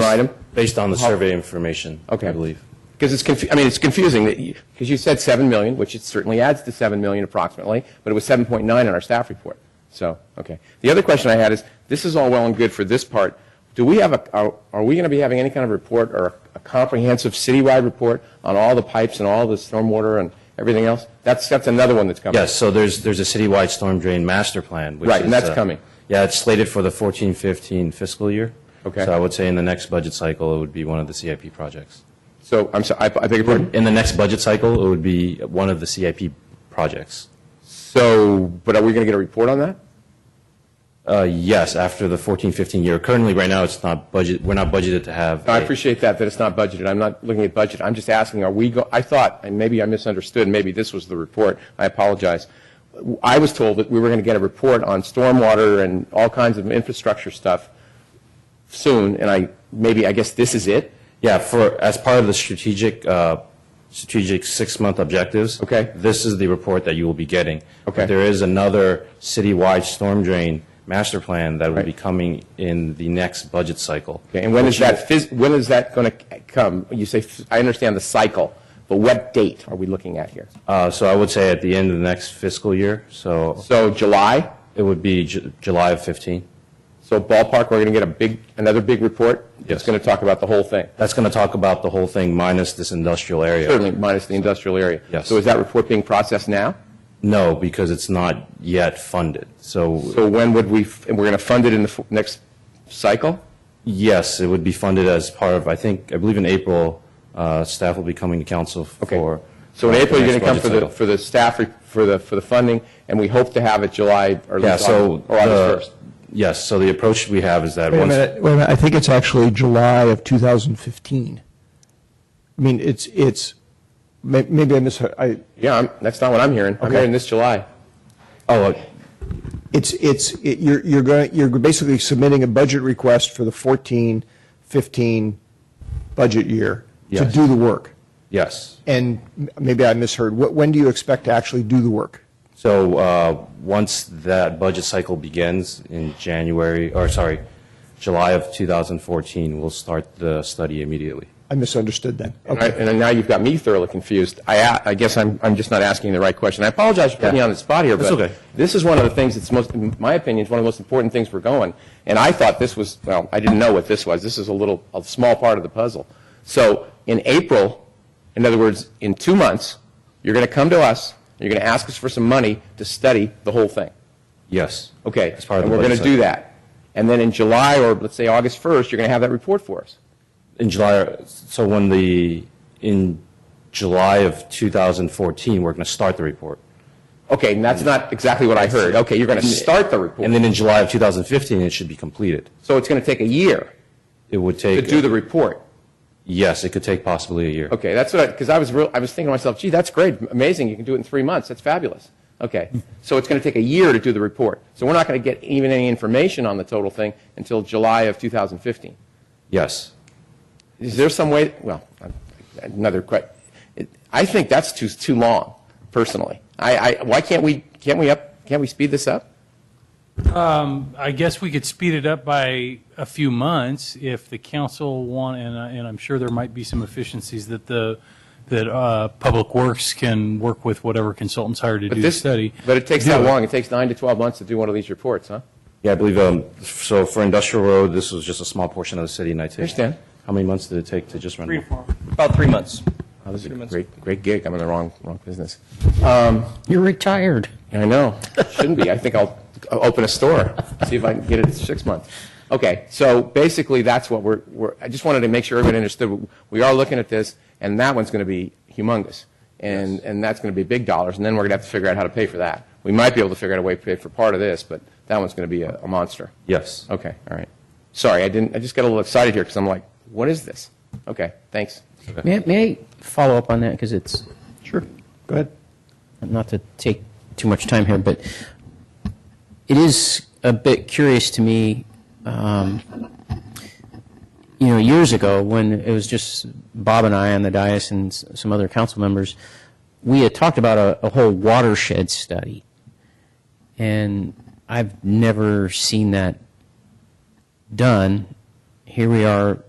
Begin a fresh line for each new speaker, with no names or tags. particular item?
Based on the
How-
survey information,
Okay.
I believe.
Because it's, confu- I mean, it's confusing, because you said 7 million, which it certainly adds to 7 million approximately, but it was 7.9 in our staff report. So, okay. The other question I had is, this is all well and good for this part. Do we have a, are are we going to be having any kind of report or a comprehensive citywide report on all the pipes and all the stormwater and everything else? That's, that's another one that's coming.
Yes, so there's, there's a citywide storm drain master plan. which
Right, and
is,
that's
uh,
coming.
Yeah, it's slated for the 14-15 fiscal year.
Okay.
So I would say in the next budget cycle, it would be one of the CIP projects.
So, I'm sorry, I I beg your pardon?
In the next budget cycle, it would be one of the CIP projects.
So, but are we going to get a report on that?
Uh, Yes, after the 14-15 year. Currently, right now, it's not budget, we're not budgeted to have.
I
a-
appreciate that, that it's not budgeted. I'm not looking at budget. I'm just asking, are we, go- I thought, and maybe I misunderstood, maybe this was the report. I apologize. I was told that we were going to get a report on stormwater and all kinds of infrastructure stuff soon, and I, maybe, I guess this is it?
Yeah, for, as part of the strategic, uh, strategic six-month objectives.
Okay.
This is the report that you will be getting.
Okay.
But There is another citywide storm drain master plan that will
Right.
be coming in the next budget cycle.
Okay, and when is that, phys- when is that going to come? You say, f- I understand the cycle, but what date are we looking at here?
Uh, So I would say at the end of the next fiscal year, so
So July?
it would be Ju- July of 15.
So ballpark, we're going to get a big, another big report? It's
Yes.
going to talk about the whole thing?
That's going to talk about the whole thing minus this industrial area.
Certainly, minus the industrial area.
Yes.
So is that report being processed now?
No, because it's not yet funded. So
So when would we, f- and we're going to fund it in the f- next cycle?
yes, it would be funded as part of, I think, I believe in April, uh, staff will be coming to council
Okay.
for.
So in
for
April,
the
you're going
next
to come for
budget
the,
cycle.
for the staff, re- for the, for the funding, and we hope to have it July or at
Yeah,
least
so.
August- or August 1st.
the- Yes, so the approach we have is that
Wait a
once.
minute, wait a minute. I think it's actually July of 2015. I mean, it's, it's, may- maybe I misheard, I,
Yeah, I'm- that's not what I'm hearing. I'm
Okay.
hearing this July.
Oh, uh,
it's, it's, it- you're, you're going, you're basically submitting a budget request for the 14, 15 budget year to
Yes.
do the work.
yes.
And m- maybe I misheard. Wh- When do you expect to actually do the work?
So uh, once that budget cycle begins in January, or sorry, July of 2014, we'll start the study immediately.
I misunderstood then.
And I-
Okay.
And now you've got me thoroughly confused. I, a- I guess I'm, I'm just not asking the right question. I apologize for putting you on the spot here,
That's
but
okay.
this is one of the things that's most, in my opinion, is one of the most important things we're going. And I thought this was, well, I didn't know what this was. This is a little, a small part of the puzzle. So in April, in other words, in two months, you're going to come to us, and you're going to ask us for some money to study the whole thing.
Yes.
Okay.
As part of
and
the
we're going
budget
to do
cycle.
that. And then in July, or let's say August 1st, you're going to have that report for us.
In July, so when the, in July of 2014, we're going to start the report.
Okay, and that's not exactly what I heard. Okay, you're going to start the report.
And then in July of 2015, it should be completed.
So it's going to take a year
It would
to
take, uh,
do the report.
yes, it could take possibly a year.
Okay, that's what, because I was real, I was thinking to myself, gee, that's great, amazing, you can do it in three months, that's fabulous. Okay, so it's going to take a year to do the report. So we're not going to get even any information on the total thing until July of 2015.
Yes.
Is there some way, well, another question. I think that's too, too long, personally. I, I, why can't we, can't we up, can't we speed this up?
I guess we could speed it up by a few months if the council want, and, I- and I'm sure there might be some efficiencies that the, that uh, Public Works can work with whatever consultants hired to do the
This-
study.
But it takes
Do
that
it.
long, it takes nine to 12 months to do one of these reports, huh?
Yeah, I believe, um, so for Industrial Road, this was just a small portion of the city, and I take.
Understand.
How many months did it take to just run?
Three to four. About three months.
Oh, this is a
minutes.
great, great gig, I'm in the wrong, wrong business.
You're retired.
I know. Shouldn't be. I think I'll I'll open a store, see if I can get it six months. Okay, so basically, that's what we're, we're, I just wanted to make sure everyone understood. We are looking at this, and that one's going to be humongous. And, and that's going to be big dollars, and then we're going to have to figure out how to pay for that. We might be able to figure out a way to pay for part of this, but that one's going to be a, a monster.
Yes.
Okay, all right. Sorry, I didn't, I just got a little excited here because I'm like, what is this? Okay, thanks.
May, may I follow up on that? Because it's,
Sure. Go ahead.
not to take too much time here, but it is a bit curious to me. Um, you know, years ago, when it was just Bob and I on the dais and s- some other council members, we had talked about a, a whole watershed study. And I've never seen that done. Here we are